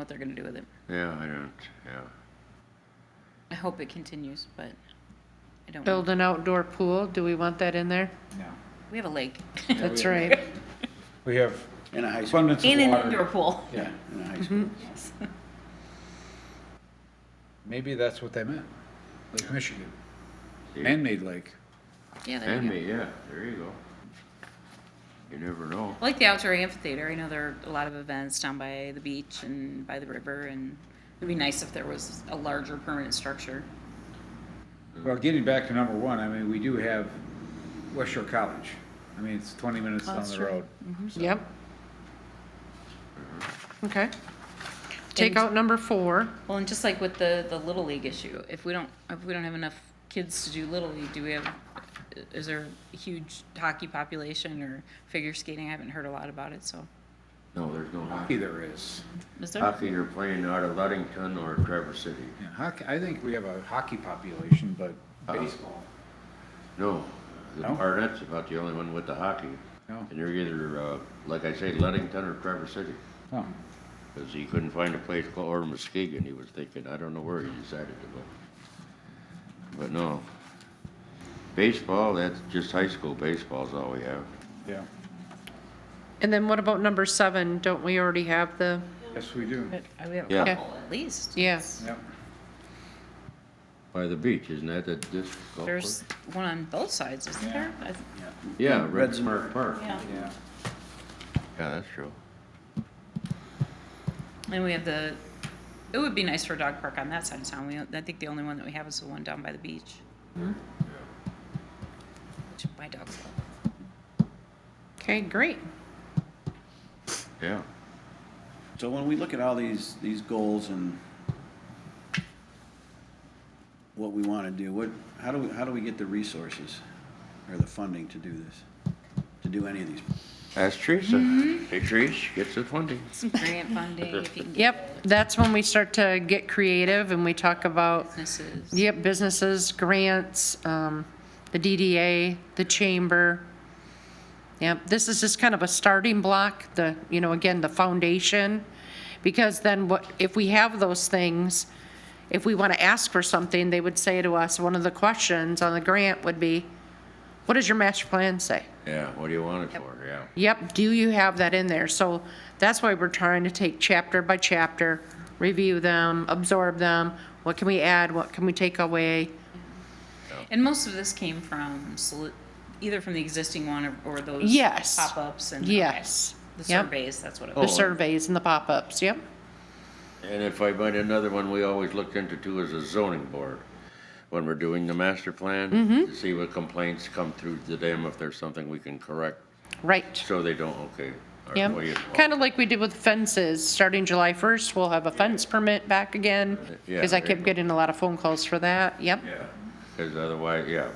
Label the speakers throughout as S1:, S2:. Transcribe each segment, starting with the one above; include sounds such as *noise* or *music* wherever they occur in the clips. S1: what they're going to do with it.
S2: Yeah, I don't, yeah.
S1: I hope it continues, but I don't. know.
S3: Build an outdoor pool, do we want that in there?
S4: Oh,
S5: No.
S1: We have a lake
S3: That's *laughs* right.
S4: We have
S5: In a high school.
S4: abundance
S1: *laughs*
S4: of
S1: and an
S4: water.
S1: indoor pool.
S5: Yeah, in a high school.
S4: Maybe that's what they meant. Lake Michigan. Man-made lake.
S5: Mm-hmm.
S1: Yeah, there
S2: And
S1: you go.
S2: me, yeah, there you go. You never know.
S1: I like the outdoor amphitheater. I know there are a lot of events down by the beach and by the river, and it'd be nice if there was a larger permanent structure.
S4: Well, getting back to number one, I mean, we do have West Shore College. I mean, it's twenty minutes down
S3: that's Mm-hmm.
S4: the
S3: true.
S4: road.
S3: Yep. Okay. Take out number four.
S1: Well, and just like with the, the Little League issue, if we don't, if we don't have enough kids to do Little League, do we have, is there a huge hockey population or figure skating? I haven't heard a lot about it, so.
S2: No, there's no hockey.
S4: Hockey there is.
S1: Is there?
S2: Hockey, you're playing out of Ludington or Traverse City.
S4: Yeah, hockey, I think we have a hockey population, but
S5: Uh-huh.
S4: baseball,
S2: No, the
S4: No?
S2: Barnett's about the only one with the hockey.
S4: no?
S2: And you're either, uh, like I say, Ludington or Traverse City.
S4: Oh,
S2: Because he couldn't find a place called, or Muskegon, he was thinking, I don't know where he decided to go. But no. Baseball, that's just high school baseball's all we have.
S4: yeah.
S3: And then what about number seven? Don't we already have the,
S4: Yes, we do.
S1: But uh, we have
S2: Yeah.
S1: a couple at least.
S3: yeah,
S4: Yep.
S2: By the beach, isn't that the disc golf
S1: There's one on both sides, isn't there? I-
S2: course? Yeah, Red
S5: Red's-
S2: Smart Park. Yeah,
S1: Yeah.
S4: Yeah.
S2: that's true.
S1: And we have the, it would be nice for a dog park on that side of town. We, I think the only one that we have is the one down by the beach. Which my dogs love.
S3: okay, great.
S2: Yeah.
S5: So when we look at all these, these goals and what we want to do, what, how do we, how do we get the resources or the funding to do this? To do any of these?
S2: That's Teresa.
S3: Mm-hmm.
S2: Hey, Teresa, gets the funding.
S1: Some grant funding, if you can
S3: *laughs*
S1: get
S3: Yep, that's when we start to get creative and we talk about,
S1: businesses.
S3: yep, businesses, grants, um, the DDA, the chamber. Yep, this is just kind of a starting block, the, you know, again, the foundation. Because then what, if we have those things, if we want to ask for something, they would say to us, one of the questions on the grant would be, what does your master plan say?
S2: Yeah, what do you want it for? Yeah.
S3: Yep, do you have that in there? So that's why we're trying to take chapter by chapter, review them, absorb them. What can we add? What can we take away?
S1: And most of this came from soli- either from the existing one or, or those
S3: Yes.
S1: pop-ups and
S3: Yes.
S1: the
S3: Yep.
S1: surveys. That's what it
S2: Oh.
S3: The
S1: was.
S3: surveys and the pop-ups, yep.
S2: And if I might, another one we always looked into too is a zoning board. When we're doing the master plan,
S3: Mm-hmm.
S2: to see what complaints come through to them, if there's something we can correct,
S3: Right,
S2: so they don't, okay. or
S3: yep.
S2: what do you-
S3: Kind of like we did with fences. Starting July 1st, we'll have a fence permit back again.
S2: Yeah,
S3: Because I
S2: there you
S3: kept
S2: go.
S3: getting a lot of phone calls for that, yep.
S2: Yeah, because otherwise, yeah,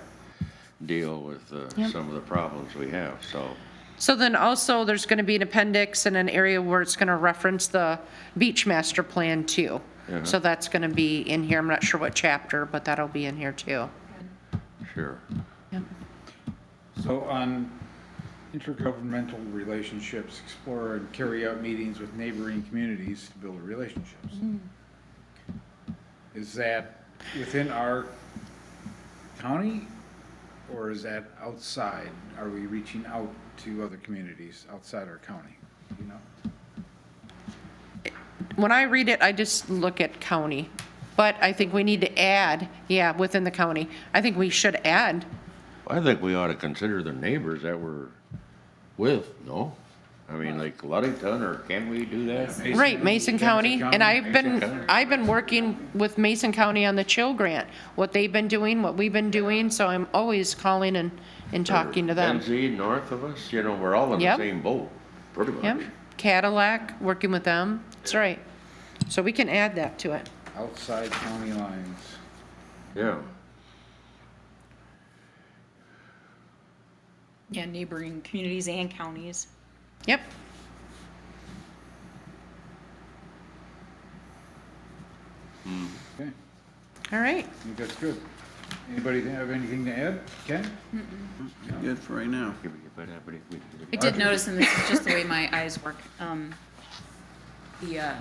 S2: deal with uh, some of the problems we have, so.
S3: So then also, there's going to be an appendix and an area where it's going to reference the beach master plan too.
S2: Uh-huh.
S3: So that's going to be in here. I'm not sure what chapter, but that'll be in here too.
S2: Sure.
S4: So on intergovernmental relationships, explore and carry out meetings with neighboring communities to build relationships.
S3: Mm-hmm.
S4: Is that within our county or is that outside? Are we reaching out to other communities outside our county? You know,
S3: When I read it, I just look at county. But I think we need to add, yeah, within the county. I think we should add,
S2: I think we ought to consider the neighbors that we're with, no? I mean, like Ludington, or can we do that?
S3: right, Mason County. And I've been,
S2: Mason County.
S3: I've been working with Mason County on the chill grant, what they've been doing, what we've been doing. So I'm always calling and, and talking to them.
S2: Benzie, north of us, you know, we're all in the
S3: Yep.
S2: same boat, pretty
S3: Yep,
S2: much.
S3: Cadillac, working with them, that's right. So we can add that to it.
S4: outside county lines.
S2: Yeah,
S1: Yeah, neighboring communities and counties.
S3: Yep,
S4: Okay,
S3: all right.
S4: I think that's good. Anybody have anything to add? Ken?
S5: Good for right now.
S2: Give it- but, uh, but it- we-
S1: I did notice, and this is just the way my eyes work, um, the, uh,